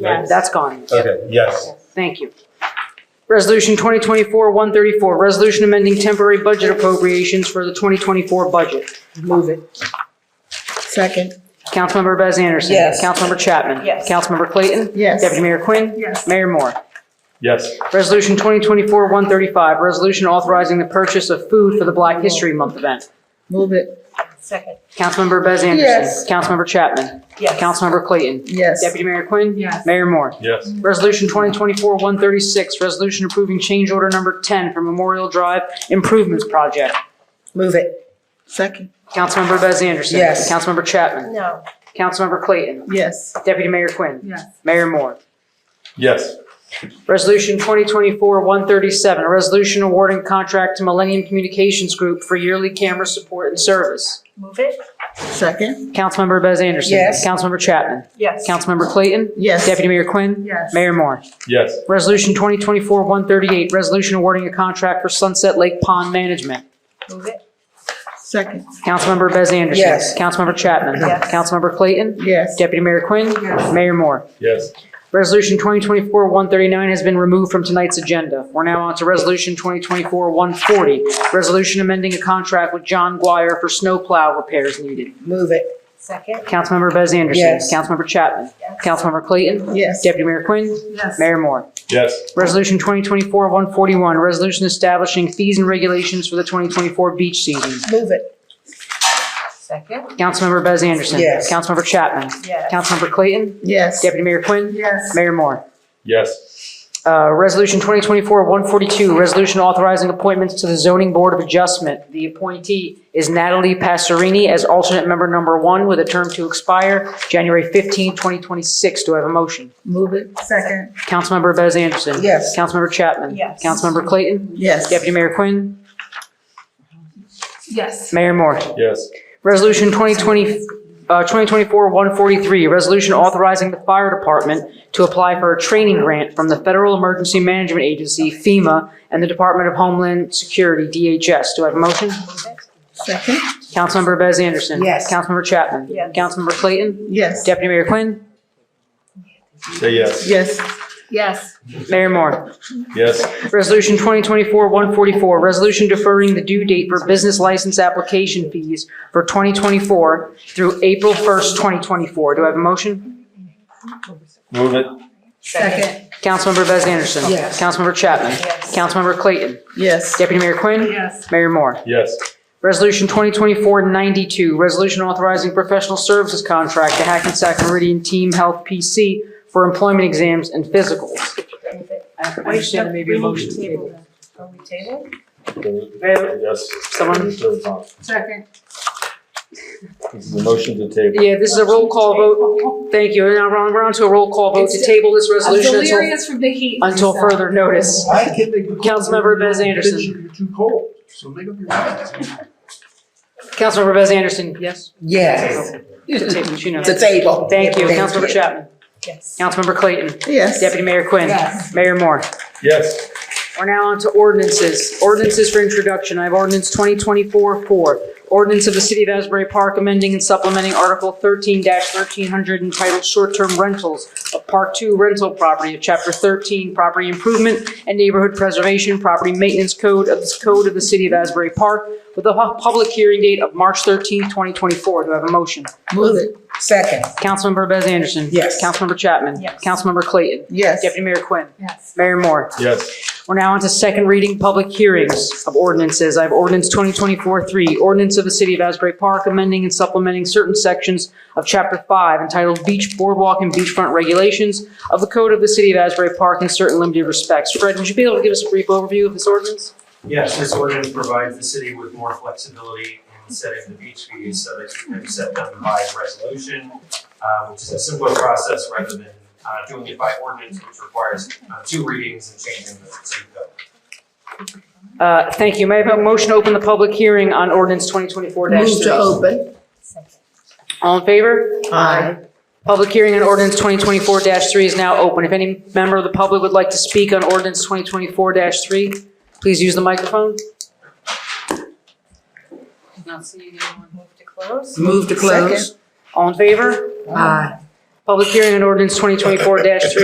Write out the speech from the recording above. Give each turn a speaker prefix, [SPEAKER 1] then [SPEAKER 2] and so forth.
[SPEAKER 1] Yes.
[SPEAKER 2] That's gone.
[SPEAKER 3] Okay, yes.
[SPEAKER 2] Thank you. Resolution 2024-134, resolution amending temporary budget appropriations for the 2024 budget.
[SPEAKER 1] Move it.
[SPEAKER 4] Second.
[SPEAKER 2] Councilmember Bez Anderson.
[SPEAKER 4] Yes.
[SPEAKER 2] Councilmember Chapman.
[SPEAKER 1] Yes.
[SPEAKER 2] Councilmember Clayton.
[SPEAKER 4] Yes.
[SPEAKER 2] Deputy Mayor Quinn.
[SPEAKER 1] Yes.
[SPEAKER 2] Mayor Moore.
[SPEAKER 3] Yes.
[SPEAKER 2] Resolution 2024-135, resolution authorizing the purchase of food for the Black History Month event.
[SPEAKER 4] Move it.
[SPEAKER 1] Second.
[SPEAKER 2] Councilmember Bez Anderson.
[SPEAKER 4] Yes.
[SPEAKER 2] Councilmember Chapman.
[SPEAKER 1] Yes.
[SPEAKER 2] Councilmember Clayton.
[SPEAKER 4] Yes.
[SPEAKER 2] Deputy Mayor Quinn.
[SPEAKER 1] Yes.
[SPEAKER 2] Mayor Moore.
[SPEAKER 3] Yes.
[SPEAKER 2] Resolution 2024-136, resolution approving change order number 10 for Memorial Drive Improvements Project.
[SPEAKER 4] Move it. Second.
[SPEAKER 2] Councilmember Bez Anderson.
[SPEAKER 4] Yes.
[SPEAKER 2] Councilmember Chapman.
[SPEAKER 1] No.
[SPEAKER 2] Councilmember Clayton.
[SPEAKER 4] Yes.
[SPEAKER 2] Deputy Mayor Quinn.
[SPEAKER 1] Yes.
[SPEAKER 2] Mayor Moore.
[SPEAKER 3] Yes.
[SPEAKER 2] Resolution 2024-137, a resolution awarding contract to Millennium Communications Group for yearly camera support and service.
[SPEAKER 1] Move it.
[SPEAKER 4] Second.
[SPEAKER 2] Councilmember Bez Anderson.
[SPEAKER 4] Yes.
[SPEAKER 2] Councilmember Chapman.
[SPEAKER 1] Yes.
[SPEAKER 2] Councilmember Clayton.
[SPEAKER 4] Yes.
[SPEAKER 2] Deputy Mayor Quinn.
[SPEAKER 1] Yes.
[SPEAKER 2] Mayor Moore.
[SPEAKER 3] Yes.
[SPEAKER 2] Resolution 2024-138, resolution awarding a contract for Sunset Lake Pond Management.
[SPEAKER 1] Move it.
[SPEAKER 4] Second.
[SPEAKER 2] Councilmember Bez Anderson.
[SPEAKER 4] Yes.
[SPEAKER 2] Councilmember Chapman.
[SPEAKER 1] Yes.
[SPEAKER 2] Councilmember Clayton.
[SPEAKER 4] Yes.
[SPEAKER 2] Deputy Mayor Quinn.
[SPEAKER 1] Yes.
[SPEAKER 2] Mayor Moore.
[SPEAKER 3] Yes.
[SPEAKER 2] Resolution 2024-139 has been removed from tonight's agenda. We're now on to Resolution 2024-140, resolution amending a contract with John Guire for snowplow repairs needed.
[SPEAKER 4] Move it.
[SPEAKER 1] Second.
[SPEAKER 2] Councilmember Bez Anderson.
[SPEAKER 4] Yes.
[SPEAKER 2] Councilmember Chapman.
[SPEAKER 1] Yes.
[SPEAKER 2] Councilmember Clayton.
[SPEAKER 4] Yes.
[SPEAKER 2] Deputy Mayor Quinn.
[SPEAKER 1] Yes.
[SPEAKER 2] Mayor Moore.
[SPEAKER 3] Yes.
[SPEAKER 2] Resolution 2024-141, resolution establishing fees and regulations for the 2024 beach season.
[SPEAKER 4] Move it.
[SPEAKER 1] Second.
[SPEAKER 2] Councilmember Bez Anderson.
[SPEAKER 4] Yes.
[SPEAKER 2] Councilmember Chapman.
[SPEAKER 1] Yes.
[SPEAKER 2] Councilmember Clayton.
[SPEAKER 4] Yes.
[SPEAKER 2] Deputy Mayor Quinn.
[SPEAKER 1] Yes.
[SPEAKER 2] Mayor Moore.
[SPEAKER 3] Yes.
[SPEAKER 2] Uh, Resolution 2024-142, resolution authorizing appointments to the Zoning Board of Adjustment. The appointee is Natalie Passerini as alternate member number one with a term to expire January 15, 2026. Do I have a motion?
[SPEAKER 4] Move it.
[SPEAKER 1] Second.
[SPEAKER 2] Councilmember Bez Anderson.
[SPEAKER 4] Yes.
[SPEAKER 2] Councilmember Chapman.
[SPEAKER 1] Yes.
[SPEAKER 2] Councilmember Clayton.
[SPEAKER 4] Yes.
[SPEAKER 2] Deputy Mayor Quinn.
[SPEAKER 1] Yes.
[SPEAKER 2] Mayor Moore.
[SPEAKER 3] Yes.
[SPEAKER 2] Resolution 2020, uh, 2024-143, resolution authorizing the fire department to apply for a training grant from the Federal Emergency Management Agency, FEMA, and the Department of Homeland Security, DHS. Do I have a motion?
[SPEAKER 1] Move it.
[SPEAKER 4] Second.
[SPEAKER 2] Councilmember Bez Anderson.
[SPEAKER 4] Yes.
[SPEAKER 2] Councilmember Chapman.
[SPEAKER 1] Yes.
[SPEAKER 2] Councilmember Clayton.
[SPEAKER 4] Yes.
[SPEAKER 2] Deputy Mayor Quinn.
[SPEAKER 3] Say yes.
[SPEAKER 4] Yes.
[SPEAKER 1] Yes.
[SPEAKER 2] Mayor Moore.
[SPEAKER 3] Yes.
[SPEAKER 2] Resolution 2024-144, resolution deferring the due date for business license application fees for 2024 through April 1st, 2024. Do I have a motion?
[SPEAKER 3] Move it.
[SPEAKER 4] Second.
[SPEAKER 2] Councilmember Bez Anderson.
[SPEAKER 4] Yes.
[SPEAKER 2] Councilmember Chapman.
[SPEAKER 1] Yes.
[SPEAKER 2] Councilmember Clayton.
[SPEAKER 4] Yes.
[SPEAKER 2] Deputy Mayor Quinn.
[SPEAKER 1] Yes.
[SPEAKER 2] Mayor Moore.
[SPEAKER 3] Yes.
[SPEAKER 2] Resolution 2024-92, resolution authorizing professional services contract to Hackensack Meridian Team Health PC for employment exams and physicals.
[SPEAKER 1] Move it.
[SPEAKER 2] I understand there may be a motion to table.
[SPEAKER 1] Table. Are we table?
[SPEAKER 3] Yes.
[SPEAKER 2] Someone-
[SPEAKER 1] Second.
[SPEAKER 3] This is a motion to table.
[SPEAKER 2] Yeah, this is a roll call vote. Thank you. Now we're on- we're on to a roll call vote to table this
[SPEAKER 1] I'm
[SPEAKER 2] resolution until-
[SPEAKER 1] delirious from the heat.
[SPEAKER 2] until
[SPEAKER 1] Lisa.
[SPEAKER 2] further notice.
[SPEAKER 5] I can make. the call.
[SPEAKER 2] Councilmember Bez
[SPEAKER 5] You're
[SPEAKER 2] Anderson.
[SPEAKER 5] Too cold, so make up your mind.
[SPEAKER 2] Councilmember Bez Anderson, yes?
[SPEAKER 4] Yes.
[SPEAKER 2] To table, she knows.
[SPEAKER 4] To table.
[SPEAKER 2] Thank you.
[SPEAKER 4] Thank
[SPEAKER 2] Councilmember
[SPEAKER 4] you.
[SPEAKER 2] Chapman.
[SPEAKER 1] Yes.
[SPEAKER 2] Councilmember Clayton.
[SPEAKER 4] Yes.
[SPEAKER 2] Deputy Mayor Quinn.
[SPEAKER 1] Yes.
[SPEAKER 2] Mayor Moore.
[SPEAKER 3] Yes.
[SPEAKER 2] We're now on to ordinances. Ordinances for introduction. I have ordinance 2024-4. Ordinance of the City of Asbury Park amending and supplementing Article 13-1300 entitled Short-Term Rentals of Part 2 Rental Property of Chapter 13 Property Improvement and Neighborhood Preservation Property Maintenance Code of the Code of the City of Asbury Park with a hu- public hearing date of March 13, 2024. Do I have a motion?
[SPEAKER 4] Move it. Second.
[SPEAKER 2] Councilmember Bez Anderson.
[SPEAKER 4] Yes.
[SPEAKER 2] Councilmember Chapman.
[SPEAKER 1] Yes.
[SPEAKER 2] Councilmember Clayton.
[SPEAKER 4] Yes.
[SPEAKER 2] Deputy Mayor Quinn.
[SPEAKER 1] Yes.
[SPEAKER 2] Mayor Moore.
[SPEAKER 3] Yes.
[SPEAKER 2] We're now on to second reading, public hearings of ordinances. I have ordinance 2024-3, ordinance of the City of Asbury Park amending and supplementing certain sections of Chapter 5 entitled Beach Boardwalk and Beachfront Regulations of the Code of the City of Asbury Park in certain limited respects. Fred, would you be able to give us a brief overview of this ordinance?
[SPEAKER 6] Yes, this ordinance provides the city with more flexibility in setting the beach fees so that you can set them by resolution, uh, which is a simpler process rather than uh, doing it by ordinance, which requires uh, two readings and changing the city code.
[SPEAKER 2] Uh, Thank you. May I have a motion to open the public hearing on ordinance 2024-3?
[SPEAKER 4] Move to open.
[SPEAKER 1] Second.
[SPEAKER 2] All in favor?
[SPEAKER 4] Aye.
[SPEAKER 2] Public hearing on ordinance 2024-3 is now open. If any member of the public would like to speak on ordinance 2024-3, please use the microphone.
[SPEAKER 1] Not seeing anyone move to close?
[SPEAKER 4] Move to close.
[SPEAKER 2] All in favor?
[SPEAKER 4] Aye.
[SPEAKER 2] Public hearing on ordinance 2024-3